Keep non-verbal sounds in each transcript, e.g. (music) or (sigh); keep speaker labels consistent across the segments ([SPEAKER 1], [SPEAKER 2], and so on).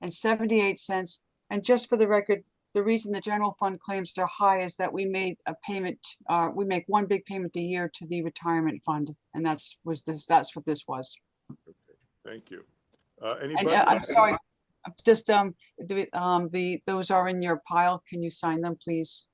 [SPEAKER 1] and seventy-eight cents. And just for the record, the reason the general fund claims they're high is that we made a payment, uh, we make one big payment a year to the retirement fund. And that's, was this, that's what this was.
[SPEAKER 2] Thank you. Uh, Any
[SPEAKER 1] And
[SPEAKER 2] budget
[SPEAKER 1] uh, I'm
[SPEAKER 2] items?
[SPEAKER 1] sorry, uh, just, um, the, um, the, those are in your pile. Can you sign them, please?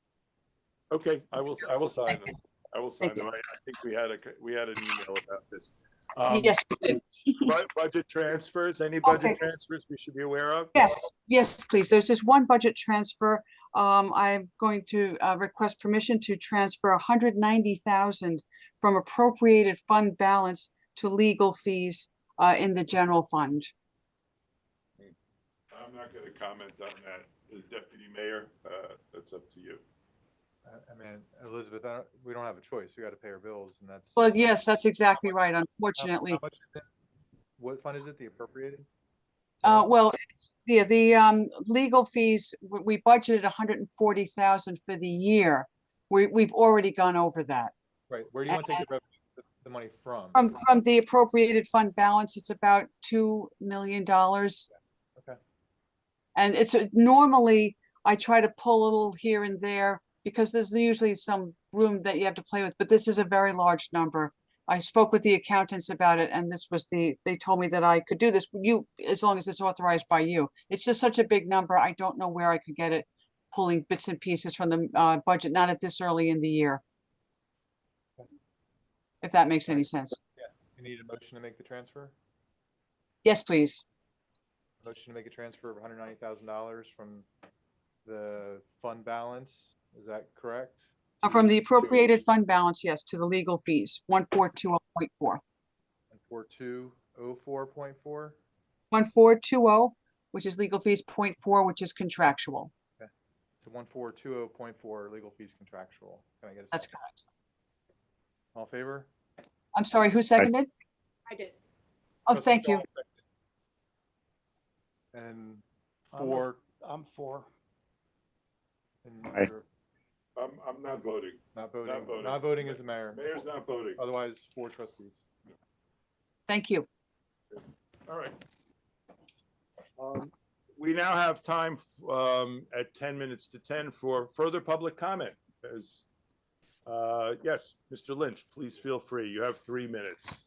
[SPEAKER 2] Okay, I will, I will sign
[SPEAKER 1] Thank
[SPEAKER 2] them. I will sign
[SPEAKER 1] Thank you.
[SPEAKER 2] them. I I think we had a, we had an email about this. Um,
[SPEAKER 1] Yes, we did.
[SPEAKER 2] bu- Budget transfers, any budget
[SPEAKER 1] Okay.
[SPEAKER 2] transfers we should be aware of?
[SPEAKER 1] Yes, yes, please. There's just one budget transfer. Um, I'm going to, uh, request permission to transfer hundred ninety thousand from appropriated fund balance to legal fees, uh, in the general fund.
[SPEAKER 2] I'm not going to comment on that. The Deputy Mayor, uh, that's up to you.
[SPEAKER 3] I- I mean, Elizabeth, I don't, we don't have a choice. We got to pay our bills and that's.
[SPEAKER 1] Well, yes, that's exactly right,
[SPEAKER 3] How- how
[SPEAKER 1] unfortunately.
[SPEAKER 3] much is it? What fund is it? The appropriated?
[SPEAKER 1] Uh, well, it's- yeah, the, um, legal fees, we, we budgeted hundred and forty thousand for the year. We, we've already gone over that.
[SPEAKER 3] Right, where do you want to take the revenue, the- the money from?
[SPEAKER 1] uh, From, from the appropriated fund balance, it's about two million dollars.
[SPEAKER 3] Okay.
[SPEAKER 1] And it's uh, normally, I try to pull a little here and there because there's usually some room that you have to play with, but this is a very large number. I spoke with the accountants about it and this was the, they told me that I could do this, you, as long as it's authorized by you. It's just such a big number. I don't know where I could get it, pulling bits and pieces from the uh, budget, not at this early in the year. If that makes any sense.
[SPEAKER 3] You need a motion to make the transfer?
[SPEAKER 1] Yes, please.
[SPEAKER 3] Motion to make a transfer of hundred ninety thousand dollars from the fund balance, is that correct?
[SPEAKER 1] Uh, From the appropriated fund balance, yes, to the legal fees, one four two oh point four.
[SPEAKER 3] Four two oh four point four?
[SPEAKER 1] One four two oh, which is legal fees, point four, which is contractual.
[SPEAKER 3] To one four two oh point four, legal fees contractual. Can I get a
[SPEAKER 1] That's
[SPEAKER 3] second? All in favor?
[SPEAKER 1] I'm sorry, who seconded?
[SPEAKER 4] I did.
[SPEAKER 1] Oh,
[SPEAKER 3] Trustee
[SPEAKER 1] thank you.
[SPEAKER 3] Dolan seconded. And
[SPEAKER 5] I'm a-
[SPEAKER 3] four.
[SPEAKER 5] I'm for.
[SPEAKER 3] and
[SPEAKER 6] Aye.
[SPEAKER 3] you're
[SPEAKER 2] I'm, I'm not voting.
[SPEAKER 3] Not voting,
[SPEAKER 2] voting.
[SPEAKER 3] not voting as a mayor.
[SPEAKER 2] Mayor's not voting.
[SPEAKER 3] Otherwise, four trustees.
[SPEAKER 1] Thank you.
[SPEAKER 2] All right. Um, We now have time um, at 10 minutes to 10 for further public comment. As, uh, Yes, Mr. Lynch, please feel free. You have three minutes.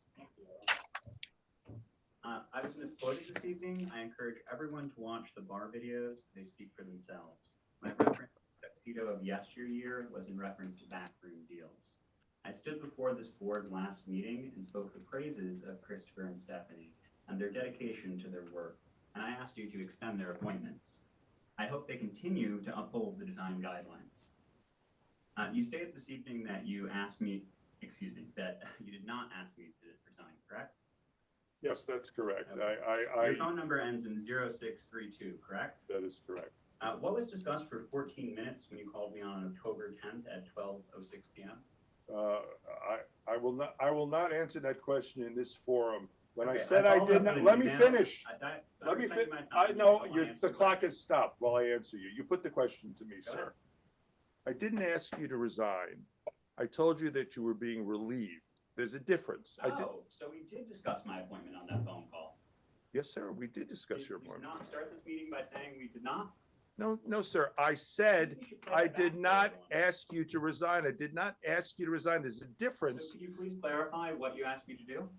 [SPEAKER 7] Uh, I was misquoted this evening. I encourage everyone to watch the bar videos. They speak for themselves. My reference to tuxedo of yesteryear was in reference to backroom deals. I stood before this board last meeting and spoke the praises of Christopher and Stephanie and their dedication to their work, and I asked you to extend their appointments. I hope they continue to uphold the design guidelines. Uh, you stated this evening that you asked me, excuse me, that (laughs) you did not ask me to resign, correct?
[SPEAKER 2] Yes, that's correct. I, I,
[SPEAKER 7] Your
[SPEAKER 2] I,
[SPEAKER 7] phone number ends in 0632, correct?
[SPEAKER 2] that is correct.
[SPEAKER 7] Uh, What was discussed for 14 minutes when you called me on October 10th at 12:06 PM?
[SPEAKER 2] Uh, I, I will not, I will not answer that question in this forum. When I
[SPEAKER 7] Okay,
[SPEAKER 2] said I
[SPEAKER 7] followed
[SPEAKER 2] did
[SPEAKER 7] up
[SPEAKER 2] not,
[SPEAKER 7] with
[SPEAKER 2] let me
[SPEAKER 7] an email.
[SPEAKER 2] finish.
[SPEAKER 7] I- that- that
[SPEAKER 2] Let me
[SPEAKER 7] reflected
[SPEAKER 2] fin-
[SPEAKER 7] my time.
[SPEAKER 2] I
[SPEAKER 7] You
[SPEAKER 2] know,
[SPEAKER 7] don't
[SPEAKER 2] your,
[SPEAKER 7] want to
[SPEAKER 2] the
[SPEAKER 7] answer
[SPEAKER 2] clock
[SPEAKER 7] that.
[SPEAKER 2] has stopped while I answer you. You put the question to me,
[SPEAKER 7] Go ahead.
[SPEAKER 2] sir. I didn't ask you to resign. I told you that you were being relieved. There's a difference. I did,
[SPEAKER 7] Oh, so we did discuss my appointment on that phone call.
[SPEAKER 2] yes, sir, we did
[SPEAKER 7] Did
[SPEAKER 2] discuss your
[SPEAKER 7] you
[SPEAKER 2] appointment.
[SPEAKER 7] not start this meeting by saying we did not?
[SPEAKER 2] No, no, sir, I said,
[SPEAKER 7] You should play
[SPEAKER 2] I
[SPEAKER 7] that back
[SPEAKER 2] did
[SPEAKER 7] for
[SPEAKER 2] not
[SPEAKER 7] everyone.
[SPEAKER 2] ask you to resign. I did not ask you to resign. There's a
[SPEAKER 7] So
[SPEAKER 2] difference.
[SPEAKER 7] could you please clarify what you asked me to do?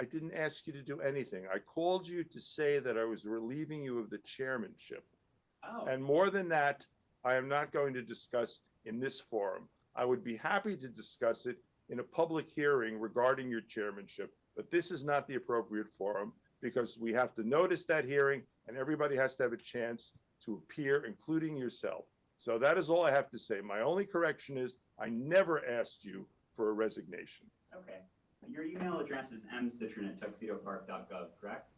[SPEAKER 2] I didn't ask you to do anything. I called you to say that I was relieving you of the chairmanship.
[SPEAKER 7] Oh.
[SPEAKER 2] And more than that, I am not going to discuss in this forum. I would be happy to discuss it in a public hearing regarding your chairmanship, but this is not the appropriate forum because we have to notice that hearing and everybody has to have a chance to appear, including yourself. So that is all I have to say. My only correction is I never asked you for a resignation.
[SPEAKER 7] Okay. Your email address is mcitron@tuxedopark.gov, correct?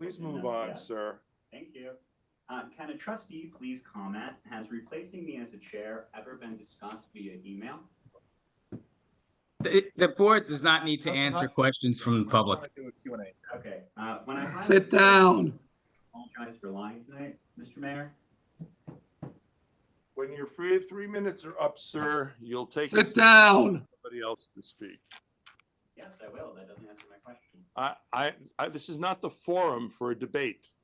[SPEAKER 2] Please
[SPEAKER 7] And
[SPEAKER 2] move
[SPEAKER 7] that's
[SPEAKER 2] on,
[SPEAKER 7] yes.
[SPEAKER 2] sir.
[SPEAKER 7] Thank you. Uh, Can a trustee please comment, has replacing me as a chair ever been discussed via email?
[SPEAKER 8] The the board does not need to
[SPEAKER 3] Not-
[SPEAKER 8] answer
[SPEAKER 3] not-
[SPEAKER 8] questions from the public.
[SPEAKER 3] Do a Q and A.
[SPEAKER 7] Okay, uh,
[SPEAKER 6] (laughs)
[SPEAKER 7] when I. highlighted-
[SPEAKER 6] Sit down.
[SPEAKER 7] Apologize for lying tonight, Mr. Mayor.
[SPEAKER 2] When your free three minutes are up, sir, you'll take
[SPEAKER 6] Sit down.
[SPEAKER 2] somebody else to speak.
[SPEAKER 7] Yes, I will. That doesn't answer my question.
[SPEAKER 2] I, I, I, this is not the forum for a debate.